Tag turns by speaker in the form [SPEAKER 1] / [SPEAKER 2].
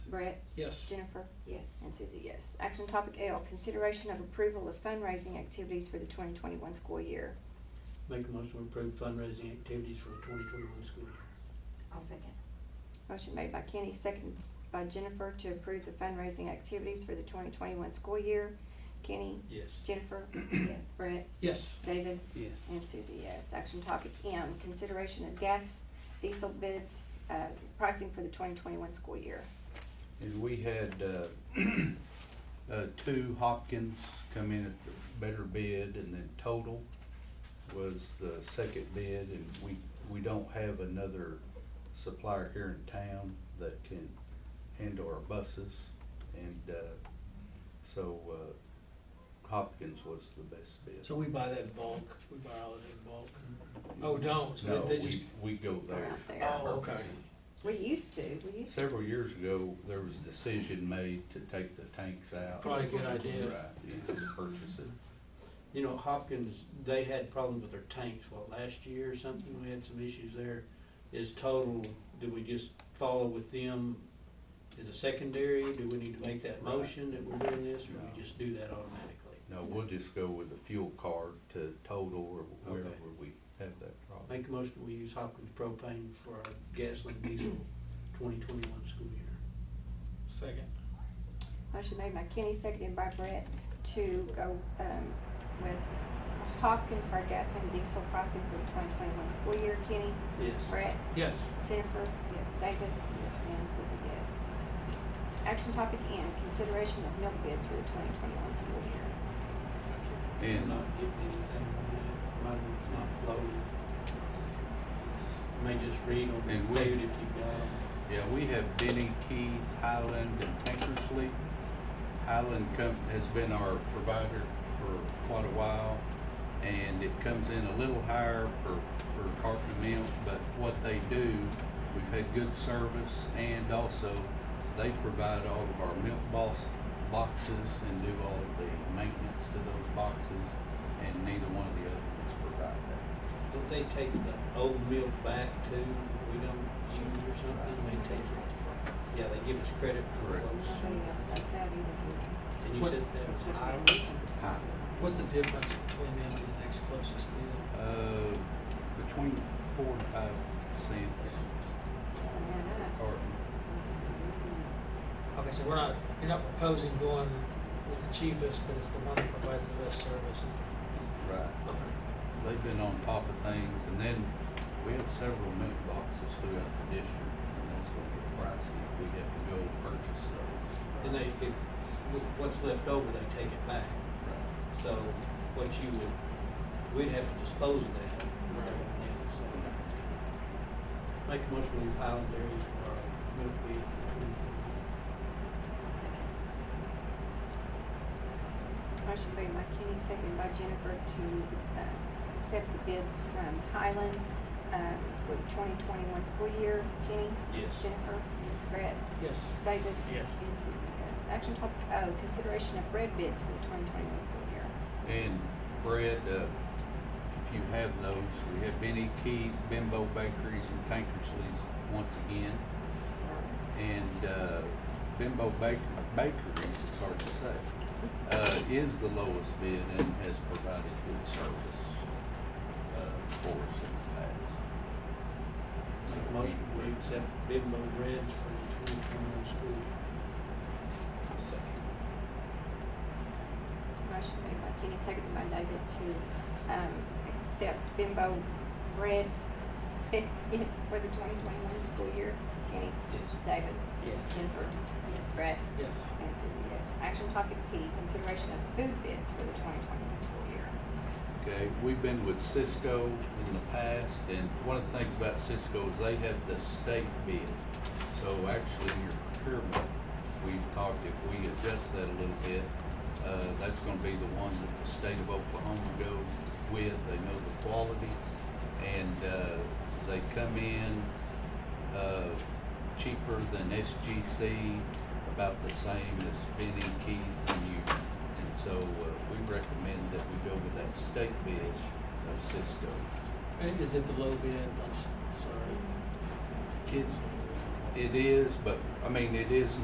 [SPEAKER 1] Brett,
[SPEAKER 2] Yes.
[SPEAKER 1] Jennifer,
[SPEAKER 3] Yes.
[SPEAKER 1] and Susie, yes. Action topic L, consideration of approval of fundraising activities for the twenty twenty-one school year.
[SPEAKER 4] Make a motion to approve fundraising activities for the twenty twenty-one school year.
[SPEAKER 3] I'll second.
[SPEAKER 1] Motion made by Kenny, second by Jennifer to approve the fundraising activities for the twenty twenty-one school year. Kenny,
[SPEAKER 4] Yes.
[SPEAKER 1] Jennifer,
[SPEAKER 3] Yes.
[SPEAKER 1] Brett,
[SPEAKER 2] Yes.
[SPEAKER 1] David,
[SPEAKER 4] Yes.
[SPEAKER 1] and Susie, yes. Action topic M, consideration of gas diesel bids, uh, pricing for the twenty twenty-one school year.
[SPEAKER 5] is we had, uh, uh, two Hopkins come in at the better bid and then total was the second bid and we, we don't have another supplier here in town that can handle our buses and, uh, so, uh, Hopkins was the best bid.
[SPEAKER 2] So we buy that in bulk, we buy all of it in bulk. Oh, don't, so
[SPEAKER 5] No,
[SPEAKER 2] they, they just,
[SPEAKER 5] we, we go
[SPEAKER 1] They're
[SPEAKER 5] there.
[SPEAKER 1] out there.
[SPEAKER 2] oh, okay.
[SPEAKER 1] We used to, we used to.
[SPEAKER 5] Several years ago, there was a decision made to take the tanks out.
[SPEAKER 2] Probably a good idea.
[SPEAKER 5] Right, yeah, to purchase it.
[SPEAKER 4] You know, Hopkins, they had problems with their tanks, what, last year or something, we had some issues there. Is total, do we just follow with them as a secondary, do we need to make that
[SPEAKER 5] Right.
[SPEAKER 4] motion that we're doing this, or
[SPEAKER 5] No.
[SPEAKER 4] we just do that automatically?
[SPEAKER 5] No, we'll just go with the fuel card to total or wherever
[SPEAKER 4] Okay.
[SPEAKER 5] we have that problem.
[SPEAKER 4] Make a motion, we use Hopkins propane for our gasoline diesel twenty twenty-one school year.
[SPEAKER 2] Second.
[SPEAKER 1] Motion made by Kenny, seconded by Brett to go, um, with Hopkins for our gas and diesel pricing for the twenty twenty-one school year. Kenny,
[SPEAKER 4] Yes.
[SPEAKER 1] Brett,
[SPEAKER 2] Yes.
[SPEAKER 1] Jennifer,
[SPEAKER 3] Yes.
[SPEAKER 1] David, and Susie, yes. Action topic N, consideration of milk bids for the twenty twenty-one school year.
[SPEAKER 5] And- uh,
[SPEAKER 4] Not getting anything from that, might as well not loaded. May just read on
[SPEAKER 5] And
[SPEAKER 4] the
[SPEAKER 5] we-
[SPEAKER 4] dude if you've got 'em.
[SPEAKER 5] Yeah, we have Denny, Keith, Highland, and Tankersley. Highland com- has been our provider for quite a while, and it comes in a little higher per, per carton of milk, but what they do, we've had good service, and also they provide all of our milk box, boxes and do all of the maintenance to those boxes, and neither one of the other ones provide that.
[SPEAKER 4] Don't they take the old milk back too, we don't use or something, they take it? Yeah, they give us credit for
[SPEAKER 5] Correct.
[SPEAKER 1] Nobody
[SPEAKER 4] those.
[SPEAKER 1] else does that either.
[SPEAKER 4] And you
[SPEAKER 2] What-
[SPEAKER 4] said that was Highland?
[SPEAKER 2] What's the difference between them and the next closest bid?
[SPEAKER 5] Uh, between four and five cents
[SPEAKER 1] Oh,
[SPEAKER 5] a
[SPEAKER 4] Oh.
[SPEAKER 5] carton.
[SPEAKER 1] Mm-hmm.
[SPEAKER 2] Okay, so we're not, you're not proposing going with the cheapest, but it's the one that provides the best service. It's-
[SPEAKER 5] Right.
[SPEAKER 2] it's- okay.
[SPEAKER 5] They've been on top of things, and then we have several milk boxes throughout the district, and that's gonna get pricey if we have to go purchase those.
[SPEAKER 4] And they, if, wh- what's left over, they take it back, so what you would, we'd have to dispose of that. with everything else, so it's kinda- Make a motion, we Highland dairy for our uh, milk bid for twenty twenty-one.
[SPEAKER 3] I'll second.
[SPEAKER 1] Motion made by Kenny, seconded by Jennifer to, uh, accept the bids from Highland, uh, for the twenty twenty-one school year. Kenny,
[SPEAKER 4] Yes.
[SPEAKER 1] Jennifer, Brett,
[SPEAKER 2] Yes.
[SPEAKER 1] David,
[SPEAKER 2] Yes.
[SPEAKER 1] and Susie, yes. Action topic O, consideration of bread bids for the twenty twenty-one school year.
[SPEAKER 5] And Brett, uh, if you have those, we have Benny Keith, Bimbo Bakeries, and Tankersley's once again. And, uh, Bimbo Bak- Bakeries, it's hard to say, uh, is the lowest bid and has provided good service, uh, for us in the past.
[SPEAKER 4] Make a motion, we accept Bimbo Reds for the twenty twenty-one school year.
[SPEAKER 2] Second.
[SPEAKER 1] Motion made by Kenny, seconded by David to, um, accept Bimbo breads it, it for the twenty twenty-one school year. Kenny,
[SPEAKER 4] Yes.
[SPEAKER 1] David,
[SPEAKER 2] Yes.
[SPEAKER 1] Jennifer,
[SPEAKER 3] Yes.
[SPEAKER 1] Brett,
[SPEAKER 2] Yes.
[SPEAKER 1] And Susie, yes. Action topic P, consideration of food bids for the twenty twenty-one school year.
[SPEAKER 5] Okay, we've been with Cisco in the past, and one of the things about Cisco is they have the state bid. So actually, your procurement, we've talked, if we adjust that a little bit, uh, that's gonna be the one that the state of Oklahoma goes with, they know the quality. And, uh, they come in, uh, cheaper than SGC, about the same as Benny Keith and you. And so, uh, we recommend that we go with that state bid of Cisco.
[SPEAKER 2] And is it the low bid? I'm s- sorry.
[SPEAKER 5] It's, it is, but, I mean, it is